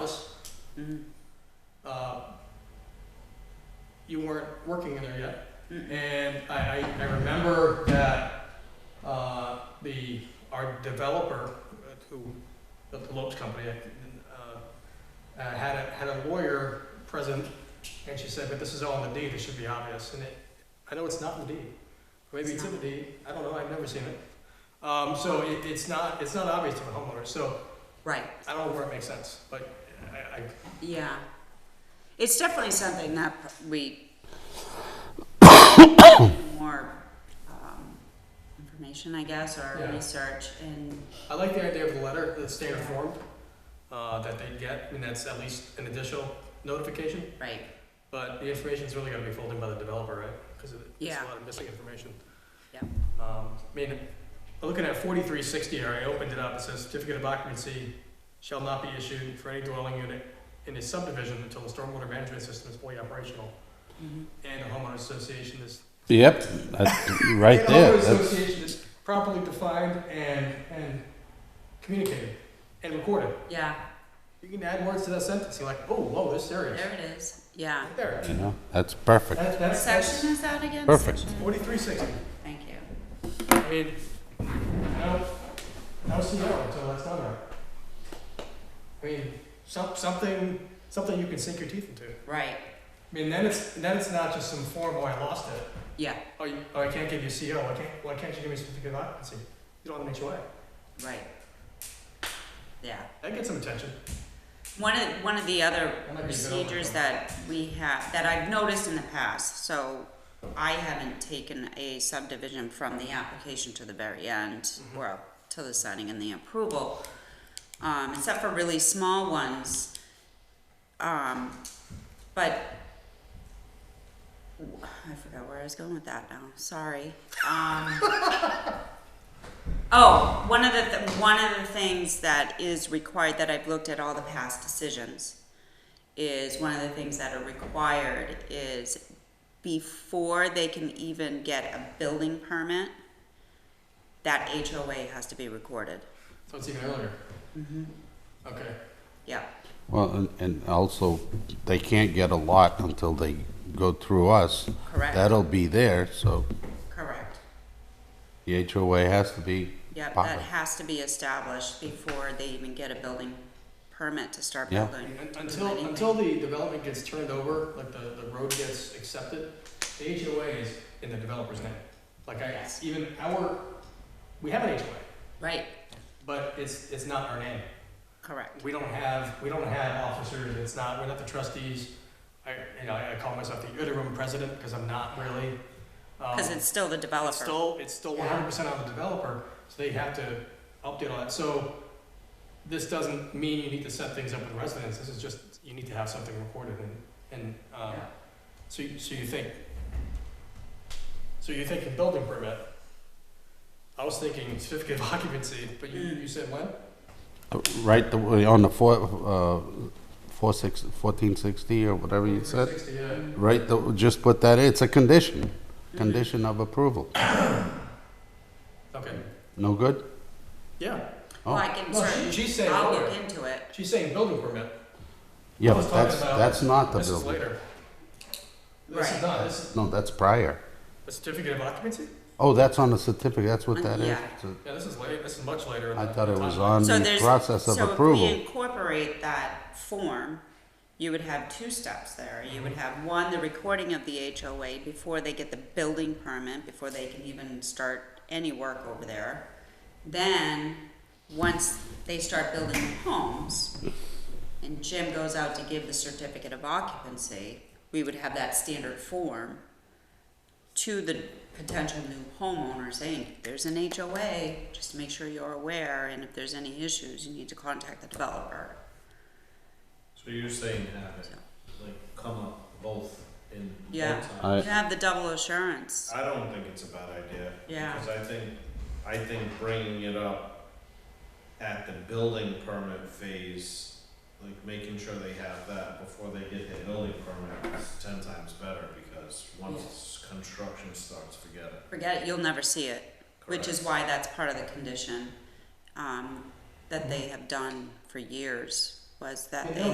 Mhm. uh, you weren't working in there yet. Mm. And I, I, I remember that, uh, the, our developer, uh, who, built the Lopes Company, uh, uh, had a, had a lawyer present, and she said, but this is all in the deed, this should be obvious, and it, I know it's not in the deed. Maybe It's it's in the not. deed, I don't know, I've never seen it. Um, so it, it's not, it's not obvious to the homeowner, so Right, I don't know where it makes sense, but I, I, yeah. It's definitely something that pr- we more um, information, I guess, or Yeah. research and, I like the idea of the letter, the stay informed, uh, that they get, I mean, that's at least an additional notification, right, but the information's really gonna be folded by the developer, right? Because there's Yeah. a lot of missing information. Yeah. Um, I mean, looking at forty-three sixty, here, I opened it up, it says certificate of occupancy shall not be issued for any dwelling unit in a subdivision until the stormwater management system is fully operational, Mhm. and the homeowner association is Yep, that's right and there. homeowner That's, association is properly defined and, and communicated and recorded. yeah, You can add words to that sentence, you're like, oh, whoa, this area, there it is, yeah. right there. you know, that's perfect. That, that's, that's Section is that again? Perfect. Section? forty-three sixty, Thank you. I mean, no, no CO until that's done right. I mean, some, something, something you can sink your teeth into. I Right, mean, then it's, then it's not just some form, oh, I lost it, yeah, oh, you, oh, I can't give you CO, why can't, why can't you give me a certificate of occupancy? You don't have an HOA, right. Yeah. that gets some attention. One of, one of the other That might be a good procedures overview. that we have, that I've noticed in the past, so I haven't taken a subdivision from the application to the very end, well, to the signing and the approval, um, except for really small ones. Um, but, I forgot where I was going with that now, sorry. Um, Oh, one of the, th- one of the things that is required, that I've looked at all the past decisions, is one of the things that are required is before they can even get a building permit, that HOA has to be recorded. So it's even earlier. Mm-hmm. Okay. Yeah, Well, and, and also, they can't get a lot until they go through us. Correct. That'll be there, so correct. the HOA has to be. Yep, proper. that has to be established before they even get a building permit to start Yeah. building. Un- Until, until the development gets turned over, like the, the road gets accepted, the HOA is in the developer's name. Like I, Yes. even our, we have an HOA, Right, but it's, it's not our name. correct, We don't have, we don't have officers, it's not, we're not the trustees. I, you know, I I call myself the interim president, because I'm not really. um, because it's still the It's developer, still, it's still one hundred percent on the developer, so they have to update all that, so this doesn't mean you need to set things up with residents, this is just, you need to have something recorded and, and, um, Yeah. so you, so you think, so you're thinking building permit. I was thinking certificate of occupancy, but you, you said when? Uh, Right, the way on the four, uh, four six, fourteen sixty or whatever you said. 360, yeah. Right, the- just put that in, it's a condition, condition of approval. okay, No good? yeah, well, I can no, certainly, she, she's saying, I'll earlier. look into it, she's saying building permit, Yeah, I was but that's, talking about- that's not the this is building. later. This Right. is not, this is No, that's prior. a certificate of occupancy? Oh, that's on the certificate, that's what Um, that is. yeah. So Yeah, this is late. This is much later. in I the- thought it the was timeline. on So the there's- process of So if approval. we incorporate that form, you would have two steps there. You would have, one, the recording of the HOA before they get the building permit, before they can even start any work over there. Then, once they start building the homes, and Jim goes out to give the certificate of occupancy, we would have that standard form to the potential new homeowner saying, there's an HOA, just make sure you're aware, and if there's any issues, you need to contact the developer. So you're saying have it, So- like, come up both in Yeah. both I- times? You have the double assurance, I don't think it's a bad idea. Yeah. Because I think, I think bringing it up at the building permit phase, like making sure they have that before they get the building permit is ten times better because once construction starts, forget it. forget it, you'll never see it, which is why that's part of the condition, um, that they have done for years, was that And they they'll